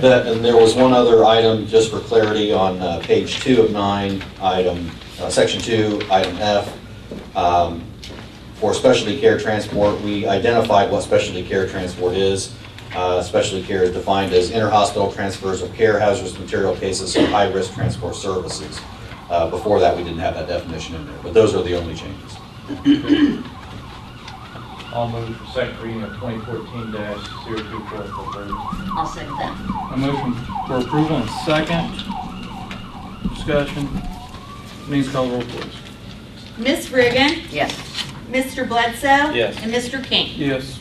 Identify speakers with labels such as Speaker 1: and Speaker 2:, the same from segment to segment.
Speaker 1: That, and there was one other item, just for clarity, on uh, page two of nine, item, uh, section two, item F. Um, For specialty care transport, we identified what specialty care transport is. Uh, Specialty care is defined as interhospital transfers of care, hazardous material cases, or high-risk transport services. Uh, Before that, we didn't have that definition in there, but those are the only changes.
Speaker 2: I'll move for second reading of 2014-024 for approval.
Speaker 3: I'll second that.
Speaker 4: A motion for approval and a second. Discussion. Denise, call the roll, please.
Speaker 5: Miss Reagan,
Speaker 3: Yes.
Speaker 5: Mr. Bledsoe.
Speaker 2: Yes.
Speaker 5: And Mr. King.
Speaker 4: Yes.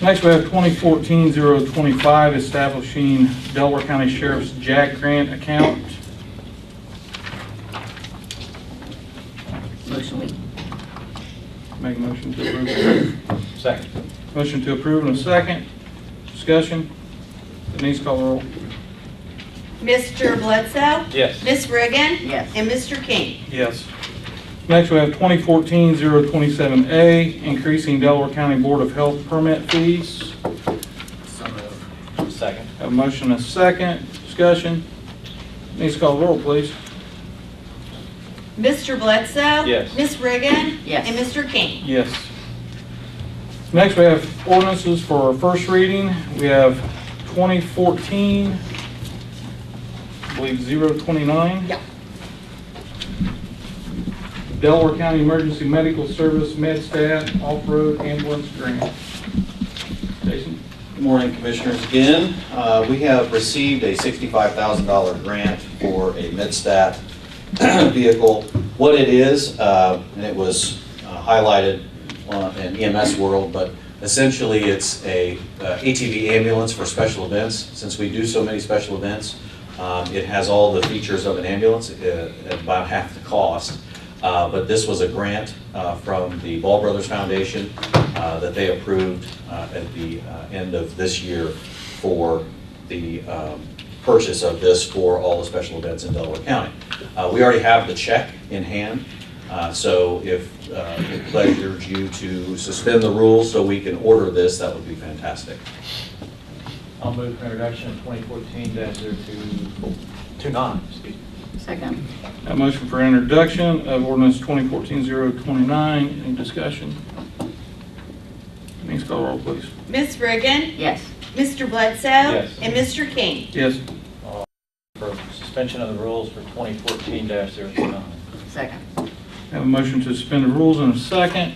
Speaker 4: Next, we have 2014-025, establishing Delaware County Sheriff's Jack Grant account.
Speaker 3: Motion we,
Speaker 4: Make a motion to approve.
Speaker 2: Second.
Speaker 4: Motion to approve and a second. Discussion. Denise, call the roll.
Speaker 5: Mr. Bledsoe.
Speaker 2: Yes.
Speaker 5: Miss Reagan.
Speaker 3: Yes.
Speaker 5: And Mr. King.
Speaker 4: Yes. Next, we have 2014-027A, increasing Delaware County Board of Health permit fees.
Speaker 2: Second.
Speaker 4: Have a motion and a second. Discussion. Denise, call the roll, please.
Speaker 5: Mr. Bledsoe.
Speaker 2: Yes.
Speaker 5: Miss Reagan.
Speaker 3: Yes.
Speaker 5: And Mr. King.
Speaker 4: Yes. Next, we have ordinances for our first reading. We have 2014, I believe 029.
Speaker 5: Yeah.
Speaker 4: Delaware County Emergency Medical Service Med Staff Off-Road Ambulance Grant. Jason?
Speaker 1: Good morning, Commissioners, again. Uh, We have received a $65,000 grant for a midstat vehicle. What it is, uh, and it was uh, highlighted on- in EMS world, but essentially it's a uh, ATV ambulance for special events. Since we do so many special events, um, it has all the features of an ambulance uh, at about half the cost. Uh, But this was a grant uh, from the Ball Brothers Foundation uh, that they approved uh, at the uh, end of this year for the um, purchase of this for all the special events in Delaware County. Uh, We already have the check in hand, uh, so if uh, it pleasures you to suspend the rules so we can order this, that would be fantastic.
Speaker 2: I'll move for introduction of 2014-02, 29, excuse me.
Speaker 3: second.
Speaker 4: A motion for introduction of ordinance 2014-029. Any discussion? Denise, call the roll, please.
Speaker 5: Miss Reagan.
Speaker 3: Yes.
Speaker 5: Mr. Bledsoe.
Speaker 2: Yes.
Speaker 5: And Mr. King.
Speaker 4: Yes.
Speaker 2: For suspension of the rules for 2014-029.
Speaker 3: Second.
Speaker 4: Have a motion to suspend the rules in a second.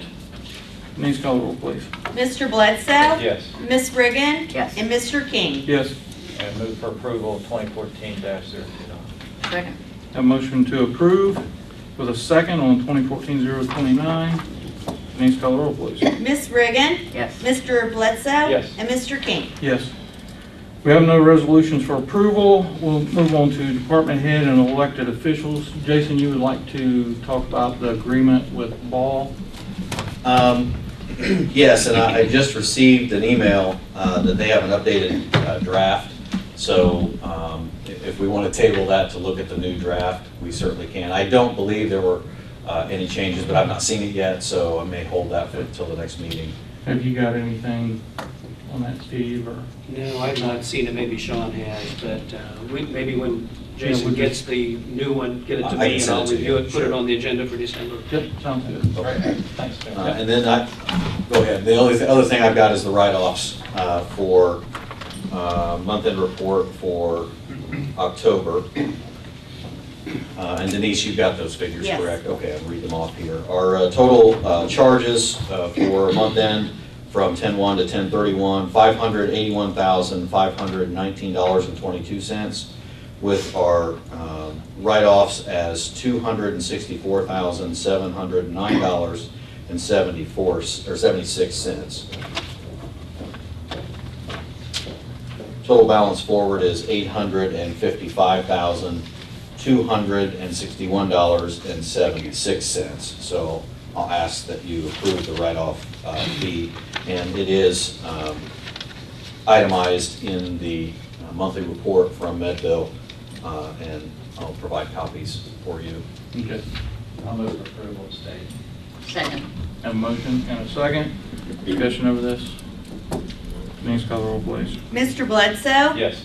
Speaker 4: Denise, call the roll, please.
Speaker 5: Mr. Bledsoe.
Speaker 2: Yes.
Speaker 5: Miss Reagan.
Speaker 3: Yes.
Speaker 5: And Mr. King.
Speaker 4: Yes.
Speaker 2: And move for approval of 2014-029.
Speaker 3: Second.
Speaker 4: Have a motion to approve with a second on 2014-029. Denise, call the roll, please.
Speaker 5: Miss Reagan.
Speaker 3: Yes.
Speaker 5: Mr. Bledsoe.
Speaker 2: Yes.
Speaker 5: And Mr. King.
Speaker 4: Yes. We have no resolutions for approval. We'll move on to department head and elected officials. Jason, you would like to talk about the agreement with Ball?
Speaker 1: Um, Yes, and I I just received an email uh, that they have an updated uh, draft, so um, if if we want to table that to look at the new draft, we certainly can. I don't believe there were uh, any changes, but I've not seen it yet, so I may hold that for- until the next meeting.
Speaker 4: Have you got anything on that, Steve, or?
Speaker 6: No, I've not seen it, maybe Sean has, but uh, we- maybe when Jason
Speaker 4: we
Speaker 6: gets the new one, get it to
Speaker 1: I- I can
Speaker 6: me and
Speaker 1: send
Speaker 6: I'll
Speaker 1: it to you,
Speaker 6: review it, put
Speaker 1: sure.
Speaker 6: it on the agenda for December.
Speaker 4: Yep, sounds good.
Speaker 2: Thanks, Ben.
Speaker 1: Uh, And then I, go ahead, the only, the other thing I've got is the write-offs uh, for uh, month-end report for October. Uh, And Denise, you got those figures,
Speaker 5: Yes.
Speaker 1: correct? Okay, I'll read them off here. Our uh, total uh, charges uh, for month-end from 10/1 to 10/31, $581,519.22, with our um, write-offs as $264,709.74, or 76 cents. Total balance forward is eight hundred and fifty-five thousand, two hundred and sixty-one dollars and seventy-six cents. So I'll ask that you approve the write-off uh, fee, and it is um, itemized in the uh, monthly report from Medville, uh, and I'll provide copies for you.
Speaker 4: Okay.
Speaker 2: I'll move for approval of state.
Speaker 3: Second.
Speaker 4: Have a motion and a second. Discussion over this. Denise, call the roll, please.
Speaker 5: Mr. Bledsoe.
Speaker 2: Yes.